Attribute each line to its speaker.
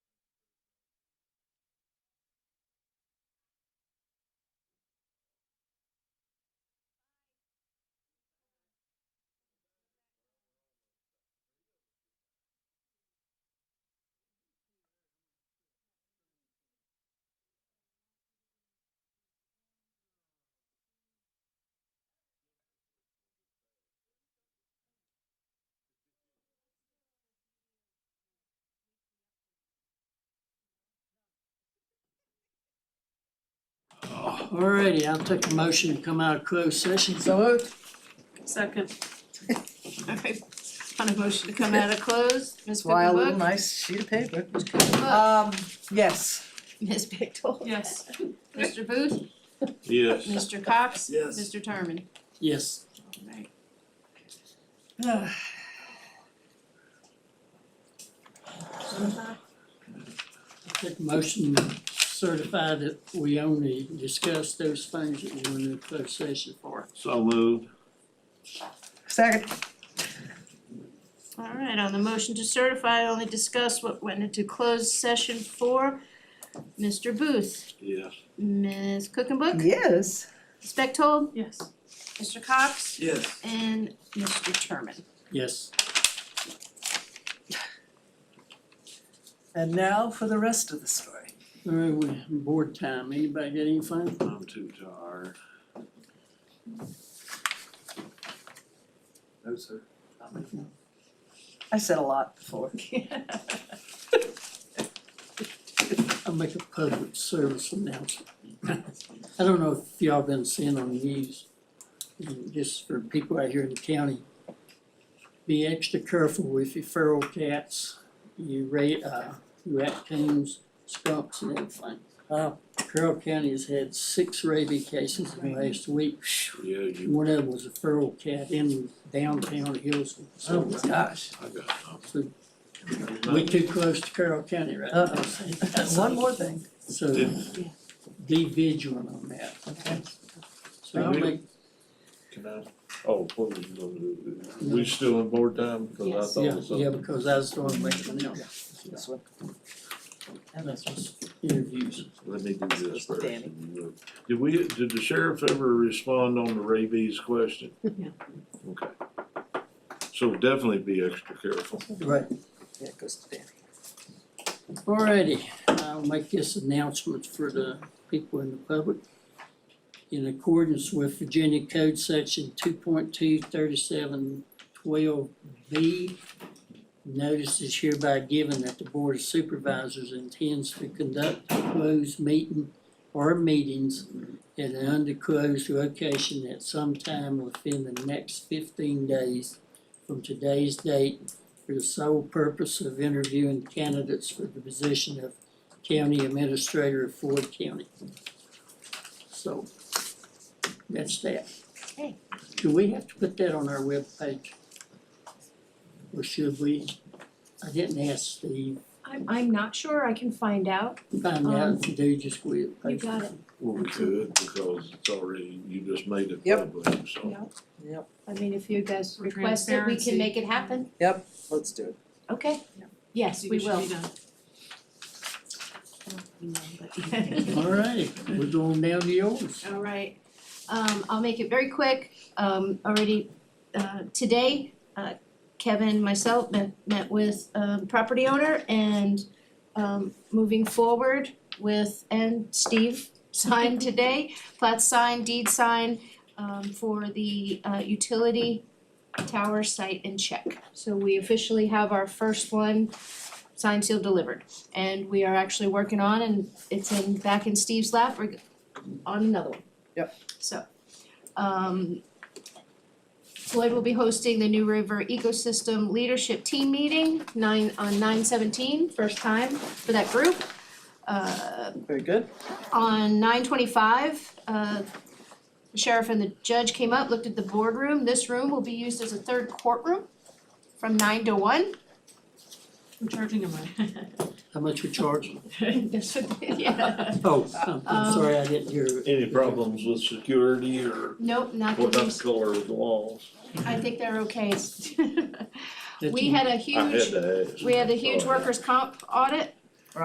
Speaker 1: Alrighty, I'll take a motion to come out of closed session, so moved.
Speaker 2: Second. Okay, on a motion to come out of close, Ms.
Speaker 3: Wild little
Speaker 2: Pippenbrook?
Speaker 3: nice sheet of paper.
Speaker 2: Cook?
Speaker 3: Um, yes.
Speaker 2: Ms. Bigdell? Yes. Mr. Booth?
Speaker 4: Yes.
Speaker 2: Mr. Cox?
Speaker 4: Yes.
Speaker 2: Mr. Terman?
Speaker 1: Yes.
Speaker 2: Alright.
Speaker 1: Take a motion to certify that we only discuss those things that we're in the closed session for.
Speaker 4: So moved.
Speaker 3: Second,
Speaker 2: Alright, on the motion to certify, only discuss what went into closed session for Mr. Booth,
Speaker 4: Yes.
Speaker 2: Ms. Cookenbook,
Speaker 3: yes.
Speaker 2: Ms. Bechtold,
Speaker 5: Yes.
Speaker 2: Mr. Cox,
Speaker 4: Yes.
Speaker 2: and Mr. Terman.
Speaker 1: Yes.
Speaker 3: And now for the rest of the story.
Speaker 1: Alright, we, board time, anybody got anything?
Speaker 4: I'm too tired. No, sir.
Speaker 3: I said a lot before.
Speaker 1: I'll make a public service announcement. I don't know if y'all been seeing on the news, and just for people out here in the county. Be extra careful with your feral cats, your ra- uh, raccoons, skunks and everything. Uh, Carroll County has had six rabies cases in the last week.
Speaker 4: Yeah, you,
Speaker 1: One of them was a feral cat in downtown Hillsville.
Speaker 3: Oh
Speaker 1: So
Speaker 3: my gosh.
Speaker 4: I got
Speaker 1: we
Speaker 4: them.
Speaker 1: too close to Carroll County right now.
Speaker 3: Uh-oh. One more thing.
Speaker 1: So be vigilant on that.
Speaker 3: Okay.
Speaker 1: So I'll
Speaker 4: Thank you.
Speaker 1: make,
Speaker 4: Can I, oh, what was you gonna do? We still on board time? Cause I thought
Speaker 1: yeah,
Speaker 4: it was
Speaker 1: yeah,
Speaker 4: something.
Speaker 1: because I was going to make one else.
Speaker 3: This one.
Speaker 1: And that's just interviews.
Speaker 4: Let me do this first.
Speaker 3: Danny.
Speaker 4: and you- Did we, did the sheriff ever respond on the rabies question?
Speaker 5: No.
Speaker 4: Okay. So definitely be extra careful.
Speaker 1: Right.
Speaker 3: Yeah, it goes to Danny.
Speaker 1: Alrighty, I'll make this announcement for the people in the public. In accordance with Virginia Code Section two point two thirty-seven twelve B, notice is hereby given that the Board of Supervisors intends to conduct a closed meeting or meetings at an underclosed location at some time within the next fifteen days from today's date for the sole purpose of interviewing candidates for the position of county administrator of Ford County. So, that's that.
Speaker 2: Okay.
Speaker 1: Do we have to put that on our webpage? Or should we? I didn't ask Steve,
Speaker 5: I'm, I'm not sure, I can find out.
Speaker 1: find out if you do, just we.
Speaker 5: Um, You got it.
Speaker 4: Well, we could, because it's already, you just made it
Speaker 3: Yep.
Speaker 4: public, so.
Speaker 5: Yeah.
Speaker 3: Yep.
Speaker 5: I mean, if you guys
Speaker 2: For
Speaker 5: request it, we can
Speaker 2: transparency.
Speaker 5: make it happen.
Speaker 3: Let's do it.
Speaker 5: Okay.
Speaker 2: Yeah.
Speaker 5: Yes, we will.
Speaker 1: Alrighty, we're going down to yours.
Speaker 5: All right, um, I'll make it very quick, um, already, uh, today, uh, Kevin, myself, met, met with, um, property owner and, um, moving forward with, and Steve signed today, plat signed, deed signed, um, for the, uh, utility tower site and check. So we officially have our first one signed, sealed, delivered, and we are actually working on, and it's in, back in Steve's lap, we're on another one.
Speaker 3: Yep.
Speaker 5: So, um, Floyd will be hosting the New River Ecosystem Leadership Team Meeting, nine, on nine seventeen, first time for that group. Uh,
Speaker 3: Very good.
Speaker 5: on nine twenty-five, uh, the sheriff and the judge came up, looked at the boardroom. This room will be used as a third courtroom from nine to one.
Speaker 2: I'm charging him right.
Speaker 1: How much we charge?
Speaker 5: That's what- yeah.
Speaker 1: Oh, I'm- I'm
Speaker 5: Um,
Speaker 1: sorry, I didn't hear.
Speaker 4: Any problems with security or
Speaker 5: Nope, not the
Speaker 4: what about the
Speaker 5: least.
Speaker 4: color of the walls?
Speaker 5: I think they're okay.
Speaker 1: Did
Speaker 5: We
Speaker 1: you-
Speaker 5: had a
Speaker 4: I had
Speaker 5: huge,
Speaker 4: to ask.
Speaker 5: we had a huge
Speaker 4: Sorry.
Speaker 5: workers' comp audit